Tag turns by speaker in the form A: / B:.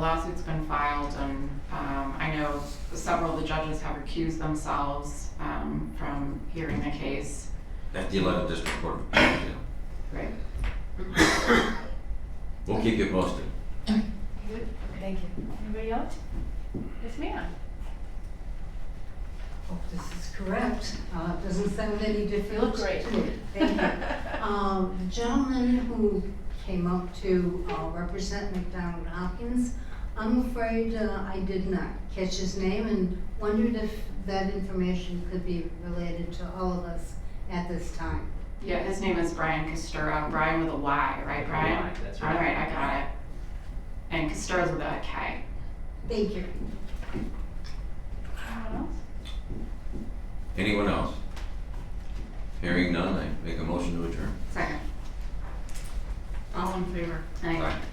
A: lawsuit's been filed, and um, I know several of the judges have recused themselves um, from hearing the case.
B: at the 11th District Court of Appeal.
A: Right.
B: We'll keep you posted.
C: Thank you.
D: Anybody else? Yes, ma'am.
C: Hope Oh, this is correct. Uh, it doesn't sound any different.
D: Great.
C: to me. Thank you. Um, the gentleman who came up to, uh, represent McDonald Hopkins, I'm afraid, uh, I did not catch his name and wondered if that information could be related to all of us at this time.
A: Yeah, his name is Brian Costura, Brian with a Y, right, Brian?
E: That's
A: All
E: right.
A: right, I got it. And Costura's with a K.
C: Thank you.
D: Anyone else?
B: Anyone else? Hearing none, I make a motion to adjourn.
A: Second. All in favor? Aye.
B: Aye.